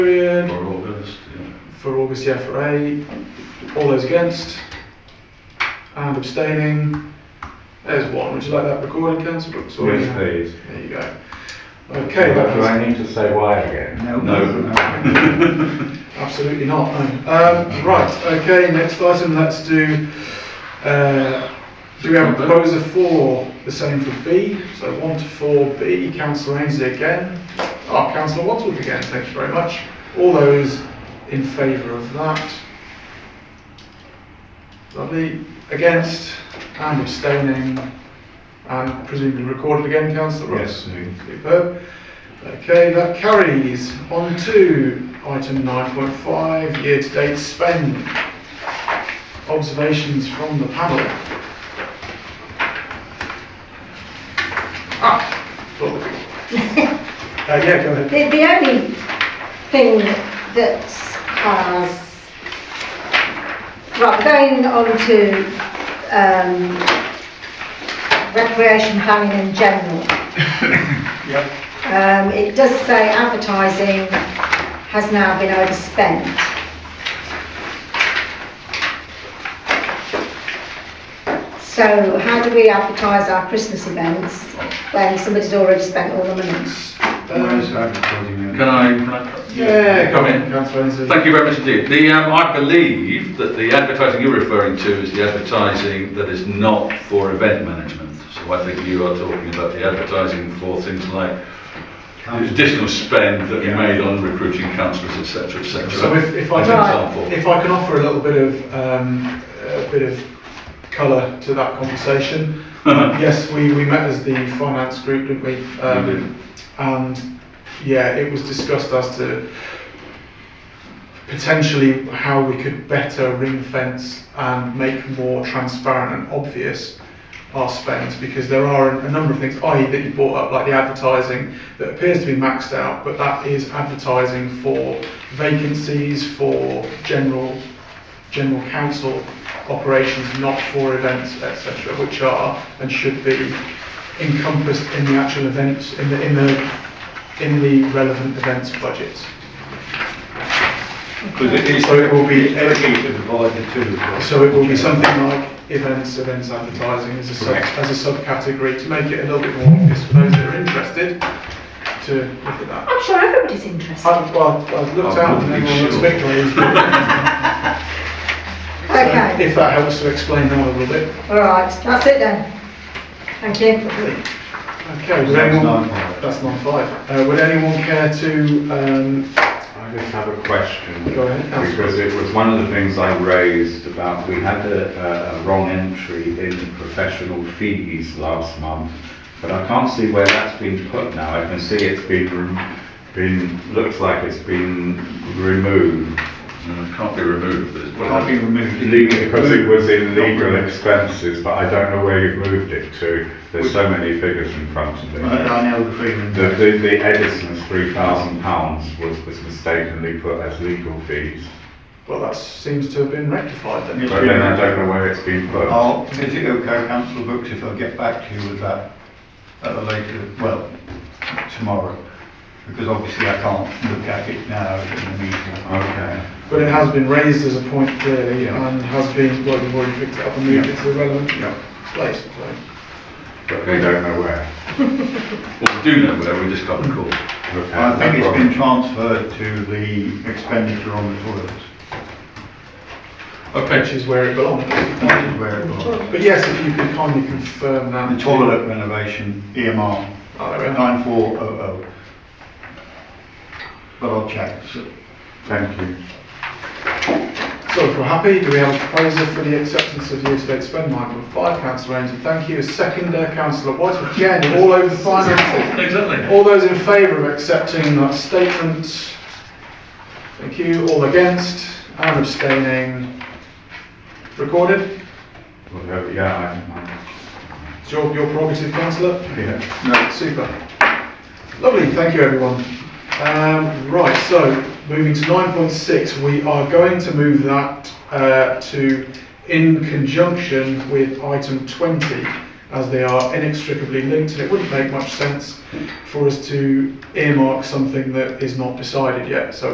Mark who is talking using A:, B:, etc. A: August the FRA. All those against? And abstaining? There's one. Would you like that recording, councillor Brooks? or-
B: Yes, please.
A: There you go. Okay, that
B: Do
A: was-
B: I need to say why again?
C: No.
A: Absolutely not, no. Um, right, okay, next item, let's do, uh, do we have a proposer for the same for B? So one to four B, councillor Ainsley again. Oh, councillor Wadsworth again, thank you very much. All those in favour of that? Lovely. Against and abstaining and presumably recorded again, councillor Ross?
B: Yes, please.
A: Superb. Okay, that carries. On to item 9.5, year-to-date spend. Observations from the panel. Ah, look. Uh, yeah, go ahead.
D: The, the only thing that uh, has, right, going on to, um, recreation planning in general.
A: Yep.
D: Um, it does say advertising has now been overspent. So how do we advertise our Christmas events when somebody's already spent all the money?
C: Where's
A: Um,
C: advertising?
E: Can I, can I?
A: Yeah, come
E: Come in.
A: in, councillor Ainsley.
E: Thank you very much indeed. The, um, I believe that the advertising you're referring to is the advertising that is not for event management. So I think you are talking about the advertising for things like the additional spend that you made on recruiting councillors, et cetera, et cetera.
A: So if, if I
E: As
A: can,
E: an example.
A: if I can offer a little bit of, um, a bit of colour to that conversation. Um, Yes, we, we met as the finance group, didn't we? Um,
E: We did.
A: And, yeah, it was discussed as to potentially how we could better ring fence and make more transparent and obvious our spends because there are a number of things, i.e. that you brought up, like the advertising, that appears to be maxed out, but that is advertising for vacancies, for general, general council operations, not for events, etc., which are and should be encompassed in the actual events, in the, in the, in the relevant events budget.
B: Because it is,
A: So it will be-
B: everything to divide the two. of us.
A: So it will be something like events, events advertising as a sub,
B: Correct.
A: as a subcategory to make it a little bit more obvious for those that are interested to look at that.
D: I'm sure everybody's interested.
A: I've, well, I've looked
E: I'm
A: out and
E: not
A: everyone
E: sure.
A: looks victorious. So
D: Okay,
A: If that helps to explain that a little bit.
D: all right, that's it then. Thank you.
A: Okay, would
B: That's
A: anyone,
B: nine five.
A: that's nine five. Uh, would anyone care to, um,
B: I just have a question.
A: Go ahead, Councillor.
B: Because it was one of the things I raised about, we had a, a- a wrong entry in professional fees last month, but I can't see where that's been put now. I can see it's been, rem- been, looks like it's been removed.
E: No, it Can't be removed, but it's.
B: Can't be removed. Because it was in legal expenses, but I don't know where you've moved it to. There's so many figures in front of me.
C: Daniel Freeman.
B: The, the, the Edison's three thousand pounds was, was mistakenly put as legal fees.
A: well, that seems to have been rectified then.
C: Yes.
B: But then I don't know where it's been put.
C: Oh, is it okay, councillor Brooks, if I get back to you with that at a later, well, tomorrow? Because obviously I can't look at it now in the meeting.
B: Okay.
A: But it has been raised as a point clearly
C: Yeah.
A: and has been, well, you've already picked it up and moved it to the relevant
C: Yeah.
A: place, so.
B: But they don't know where.
E: Well, we do know where, we just can't recall.
B: Okay,
C: I think
B: no
C: it's been
B: problem.
C: transferred to the expenditure on the toilets,
E: Okay,
A: which is where it belongs.
C: That is where it was.
A: But yes, if you could kindly confirm that.
C: The toilet renovation EMR
A: Oh, there we are.
C: nine four oh oh. But I'll check, so
B: Thank you.
A: So if we're happy, do we have a proposal for the acceptance of year-to-date spend, Michael? Five, councillor Ainsley, thank you. Seconder, councillor White, again, all over finances.
E: exactly.
A: All those in favour of accepting that statement? Thank you. All against and abstaining? Recorded?
B: Well, no, yeah,
A: It's your, your prerogative, councillor.
B: I, I, yeah.
A: Super. Lovely, thank you everyone. Um, right, so moving to 9.6, we are going to move that uh, to in conjunction with item 20 as they are inextricably linked and it wouldn't make much sense for us to earmark something that is not decided yet. So